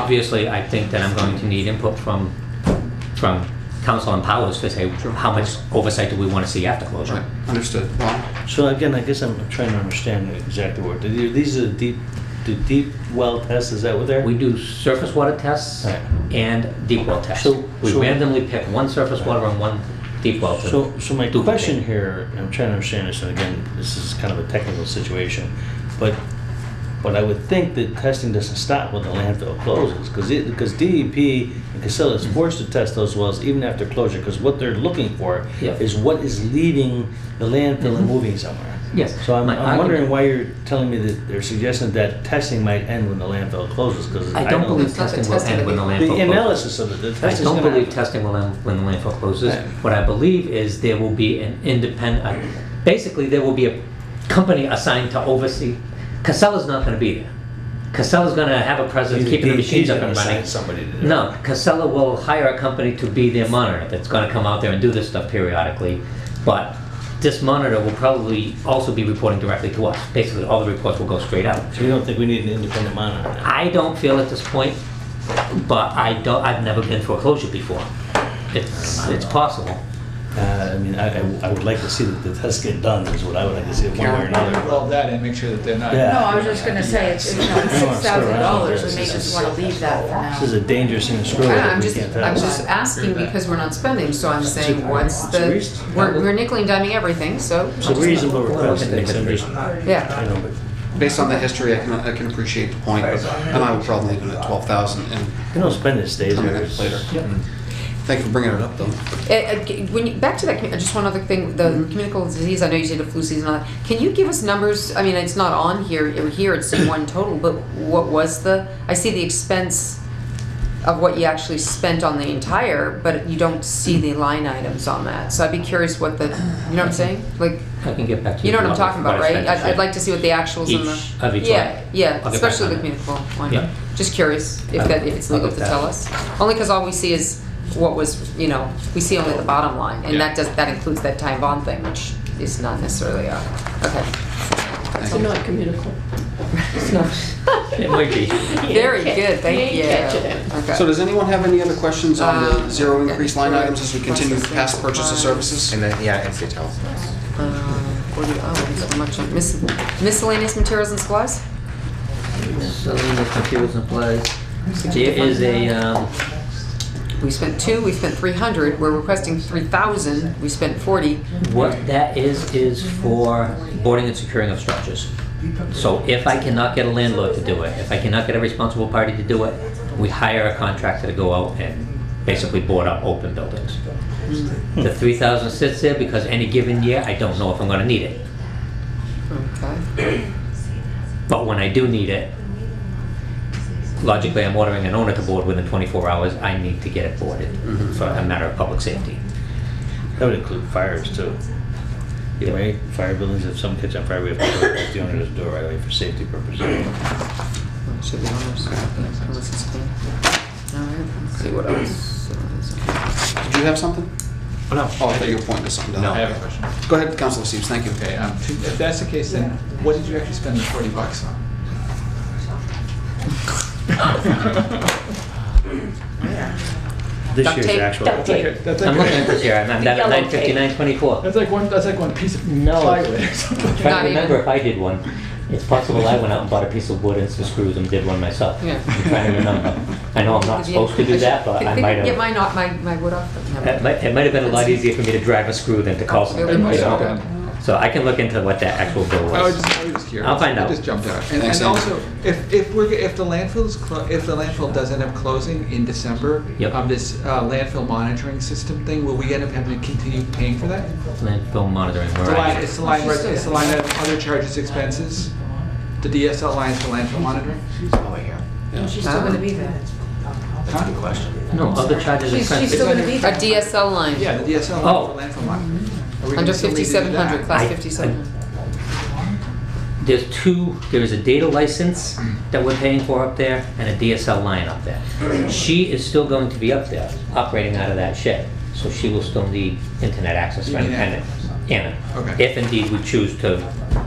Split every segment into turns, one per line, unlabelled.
obviously, I think that I'm going to need input from, from council and powers to say,
Sure.
how much oversight do we want to see after
Right,
closure?
understood. Ron?
So again, I guess I'm trying to understand exactly what, these are the deep, the deep well tests, is that what they're?
We do surface water tests
Right.
and deep well tests.
So-
We
so-
randomly pick one surface water and one deep well. to
So, so my
duplicate.
question here, and I'm trying to understand this, and again, this is kind of a technical situation, but, but I would think that testing doesn't stop when the landfill closes, because it, because DEP and Casella is forced to test those wells even after closure, because what they're looking for
Yeah.
is what is leaving the landfill and
Mhm.
moving somewhere.
Yes,
So I'm,
my
I'm wondering
argument-
why you're telling me that, they're suggesting that testing might end when the landfill closes, because
I don't believe
That's not the
testing will
testing
end when the
that
landfill
The
closes.
analysis of it, the
I
testing's
don't
gonna
believe
happen.
testing will end when the landfill closes.
Right.
What I believe is there will be an independent, uh, basically, there will be a company assigned to oversee. Casella's not gonna be there. Casella's gonna have a presence,
Either
keeping the
DEP 's
machines up
gonna
and running.
assign Somebody to do it.
No, Casella will hire a company to be their monitor that's gonna come out there and do this stuff periodically. But this monitor will probably also be reporting directly to us. Basically, all the reports will go straight out.
So you don't think we need an independent monitor? then?
I don't feel at this point, but I don't, I've never been foreclosure before. It's, it's possible.
Uh, I mean, I, I- I would like to see that the tests get done, is what I would like to see, one way or another.
Well, that, and make sure that they're not.
Yeah.
No, I was just gonna say, it's, you know,
I don't wanna
six
sit around
thousand dollars,
with
we may
this.
just wanna leave that for now.
This is a dangerous thing to screw with.
Yeah, I'm
we
just,
can't
I'm
touch.
just asking because we're not spending, so I'm saying, what's the, we're, we're nickel and diming everything, so.
It's a reasonable request, and it's- I'm just,
Yeah,
I know, but,
Based on the history, I can, I can appreciate the point, but- and I would probably leave it at twelve thousand and
you don't spend this days.
come
or
minutes
it's-
later. Thank you for bringing it up, though.
It- it- Eh, when you, back to that, commu- just one other thing, the communicable disease, I know you did a flu season, and all that. can you give us numbers, I mean, it's not on here, or here it's in one total, but what was the, I see the expense of what you actually spent on the entire, but you don't see the line items on that, so I'd be curious what the, you know what I'm saying? Like,
I can get back to you.
You know what I'm talking about,
what I
right?
spent
I'd, I'd
this
like to see what the actuals in
Each
the.
of each
Yeah,
one. I'll get
yeah,
back
especially
on
the
that.
communicable
Yeah.
one. Just curious if
I'll-
that, if it's
I'll
legal
get
to
that.
tell us. Only because all we see is what was, you know, we see only the bottom line. And
Yeah.
that does, that includes that time bond thing, which is not necessarily, uh, okay.
Thank you.
not communicable.
It might be.
Very good, thank you.
You ain't catching it.
Okay.
So does anyone have any other questions on the
Uh,
zero increase line
yeah.
items as we continue past purchase of services?
And then, yeah, and state health.
Uh, Forty, oh, there's so much on mis- miscellaneous materials and supplies?
Miscellaneous materials and supplies. There is a, um,
We spent two, we spent three hundred, we're requesting three thousand, we spent forty.
what that is, is for boarding and securing of structures. So if I cannot get a landlord to do it, if I cannot get a responsible party to do it, we hire a contractor to go out and basically board up open buildings. The three thousand sits there because any given year, I don't know if I'm gonna need it.
Okay.
But when I do need it, logically, I'm ordering an owner to board within 24 hours. I need to get it boarded for a matter of public safety.
That would include fires too. Yeah, right, fire buildings, if someone catches on fire, we have to go to the owner to do it right away for safety purposes.
Should be almost. Unless it's clean. All right, let's see what else.
Did you have something?
No.
Oh, I thought you were pointing to something.
I have a question.
Go ahead, Councilor Steves, thank you.
Okay, um, to- if that's the case, then what did you actually spend the forty bucks on?
This
Duct
year's
tape,
actual.
duct tape.
Okay, That's
I'm
like-
looking at this here, I'm I'm down at
Yellow tape.
959.24.
That's like one, that's like one piece of
No.
plywood or
Trying
something.
Not
to
even.
remember if I did one. It's possible I went out and bought a piece of wood and some screws and did one myself.
Yeah.
I'm trying to remember. I know I'm not supposed to do that, but I might
Get
have.
my, not, my, my wood off. but
It
never.
might, it might have been a lot easier for me to drive a screw than to call somebody,
It
you
must have
know? So I can look into what that actual bill was.
I was just, I was just curious.
I'll find out.
It just jumped out. And,
Thanks,
and
Andy.
also, if, if we're, g- if the landfill's, clo- if the landfill does end up closing in December,
Yep.
um, this uh, landfill monitoring system thing, will we end up having to continue paying for that?
Landfill monitoring,
It's
where
the
are
line,
you?
it's the line, right- it's the line item, other charges, expenses. The DSL line is the landfill monitoring.
Yeah.
still gonna be
there.
That's a good question.
No, other charges and
She's, she's
expenses.
still gonna be
A
there.
DSL line.
Yeah, the DSL
Oh.
line for landfill monitoring. Are we gonna
Under
still need to do
fifty-seven hundred,
that?
class
I-
fifty-seven hundred.
There's two, there is a data license that we're paying for up there and a DSL line up there. She is still going to be up there, operating out of that shed, so she will still need internet access for
You mean
independent. Anna.
Okay.
If indeed we choose to,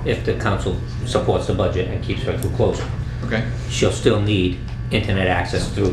if the council supports the budget and keeps her through closure,
Okay.
she'll still need internet access through